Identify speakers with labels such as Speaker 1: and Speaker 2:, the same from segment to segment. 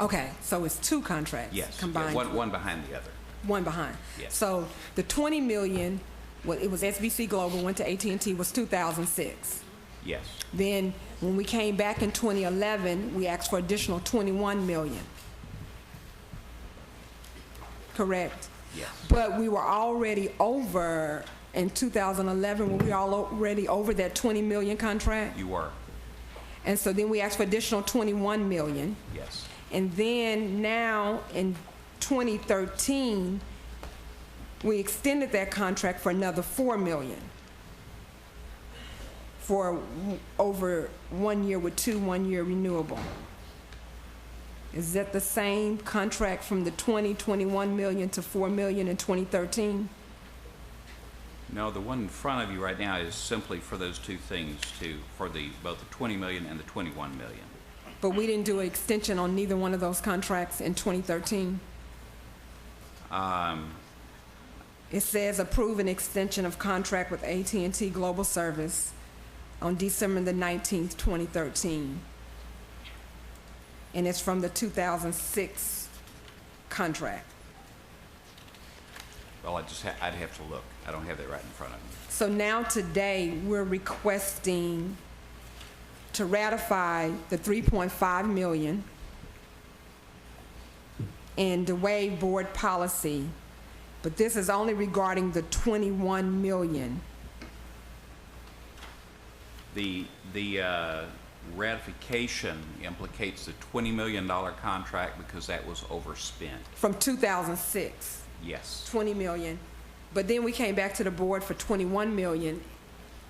Speaker 1: Okay, so it's two contracts?
Speaker 2: Yes. yeah,
Speaker 1: Oh, Combined?
Speaker 2: One, one behind the other.
Speaker 1: One behind?
Speaker 2: Yes.
Speaker 1: So the 20 million, well, it was SBC Global, went to at and t was 2006.
Speaker 2: Yes,
Speaker 1: Then, when we came back in 2011, we asked for additional 21 million. Correct?
Speaker 2: yes.
Speaker 1: But we were already over, in 2011, were we all already over that 20 million contract?
Speaker 2: You were,
Speaker 1: And so then we asked for additional 21 million.
Speaker 2: yes.
Speaker 1: And then now in 2013, we extended that contract for another 4 million for w- over one year with two one-year renewable. Is that the same contract from the 20, 21 million to 4 million in 2013?
Speaker 2: No, the one in front of you right now is simply for those two things to, for the, both the 20 million and the 21 million.
Speaker 1: But we didn't do an extension on neither one of those contracts in 2013. It says approve an extension of contract with at and t Global Service on December the 19th, 2013. And it's from the 2006 contract.
Speaker 2: Well, I just, ha- I'd have to look. I don't have that right in front of me.
Speaker 1: So now today, we're requesting to ratify the 3.5 million and the waive board policy, but this is only regarding the 21 million.
Speaker 2: The, the uh, ratification implicates the $20 million contract because that was overspent.
Speaker 1: from 2006,
Speaker 2: Yes.
Speaker 1: 20 million. But then we came back to the board for 21 million,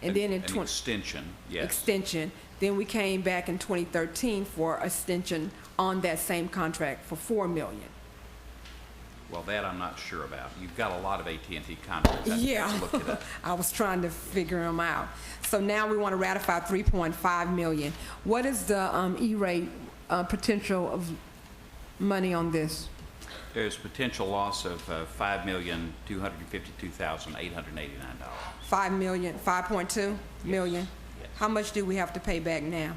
Speaker 1: and then in
Speaker 2: An-
Speaker 1: 20
Speaker 2: An extension, yes.
Speaker 1: extension. Then we came back in 2013 for extension on that same contract for 4 million.
Speaker 2: Well, that I'm not sure about. You've got a lot of at and t contracts. I'd
Speaker 1: Yeah.
Speaker 2: have to look it up.
Speaker 1: I was trying to figure them out. So now we want to ratify 3.5 million. What is the um, E-rate uh, potential of money on this?
Speaker 2: There's potential loss of uh, $5,252,889.
Speaker 1: 5 million, 5.2 million?
Speaker 2: Yes.
Speaker 1: How much do we have to pay back now?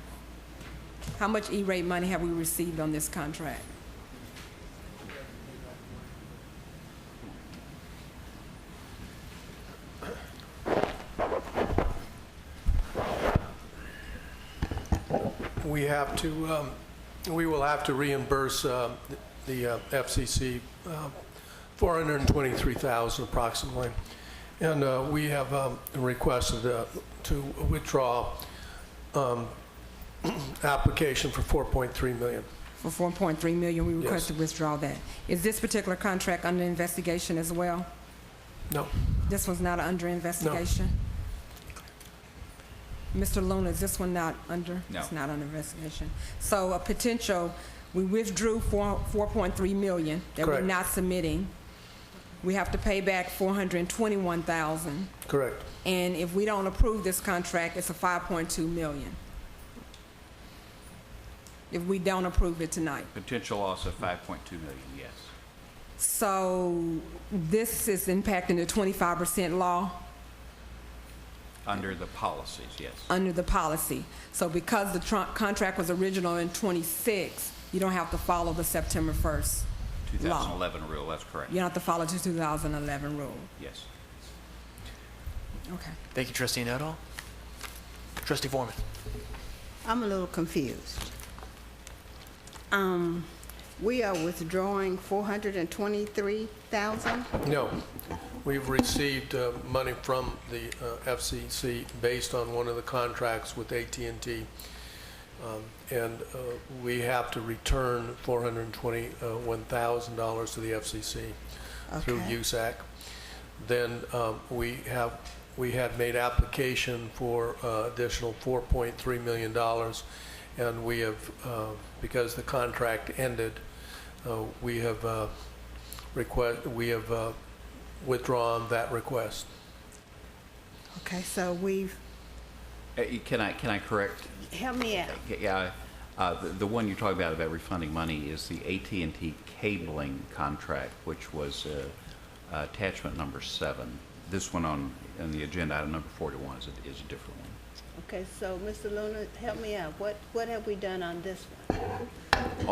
Speaker 1: How much E-rate money have we received on this contract?
Speaker 3: We have to, um, we will have to reimburse uh, the uh, FCC uh, $423,000 approximately. And uh, we have um, requested uh, to withdraw um, application for 4.3 million.
Speaker 1: For 4.3 million, we request
Speaker 3: Yes.
Speaker 1: to withdraw that. Is this particular contract under investigation as well?
Speaker 3: No,
Speaker 1: This one's not under investigation? Mr. Luna, is this one not under?
Speaker 2: No.
Speaker 1: It's not under investigation. So a potential, we withdrew four, 4.3 million that we're
Speaker 3: Correct.
Speaker 1: not submitting. We have to pay back 421,000.
Speaker 3: correct.
Speaker 1: And if we don't approve this contract, it's a 5.2 million. If we don't approve it tonight.
Speaker 2: Potential loss of 5.2 million, yes.
Speaker 1: So this is impacting the 25% law
Speaker 2: Under the policies, yes.
Speaker 1: under the policy. So because the tr- contract was original in 26, you don't have to follow the September 1st law.
Speaker 2: 2011 rule, that's correct.
Speaker 1: You don't have to follow the 2011 rule.
Speaker 2: Yes.
Speaker 1: Okay.
Speaker 4: Thank you, Trustee Nettle. Trustee Foreman.
Speaker 5: I'm a little confused. Um, we are withdrawing four hundred and twenty-three thousand?
Speaker 3: No. We've received uh, money from the uh, FCC based on one of the contracts with at and t and uh, we have to return uh, $421,000 to the FCC through
Speaker 5: Okay.
Speaker 3: USAC. Then um, we have, we had made application for uh, additional $4.3 million, and we have, uh, because the contract ended, uh, we have uh, request, we have uh, withdrawn that request.
Speaker 5: Okay, so we've,
Speaker 2: Uh, you- Can I, can I correct?
Speaker 5: help me out.
Speaker 2: Yeah, uh, the- the one you're talking about about refunding money is the at and t cabling contract, which was uh, uh, attachment number seven. This one on, on the agenda, item number 41, is a, is a different one.
Speaker 5: Okay, so Mr. Luna, help me out. What, what have we done on this one?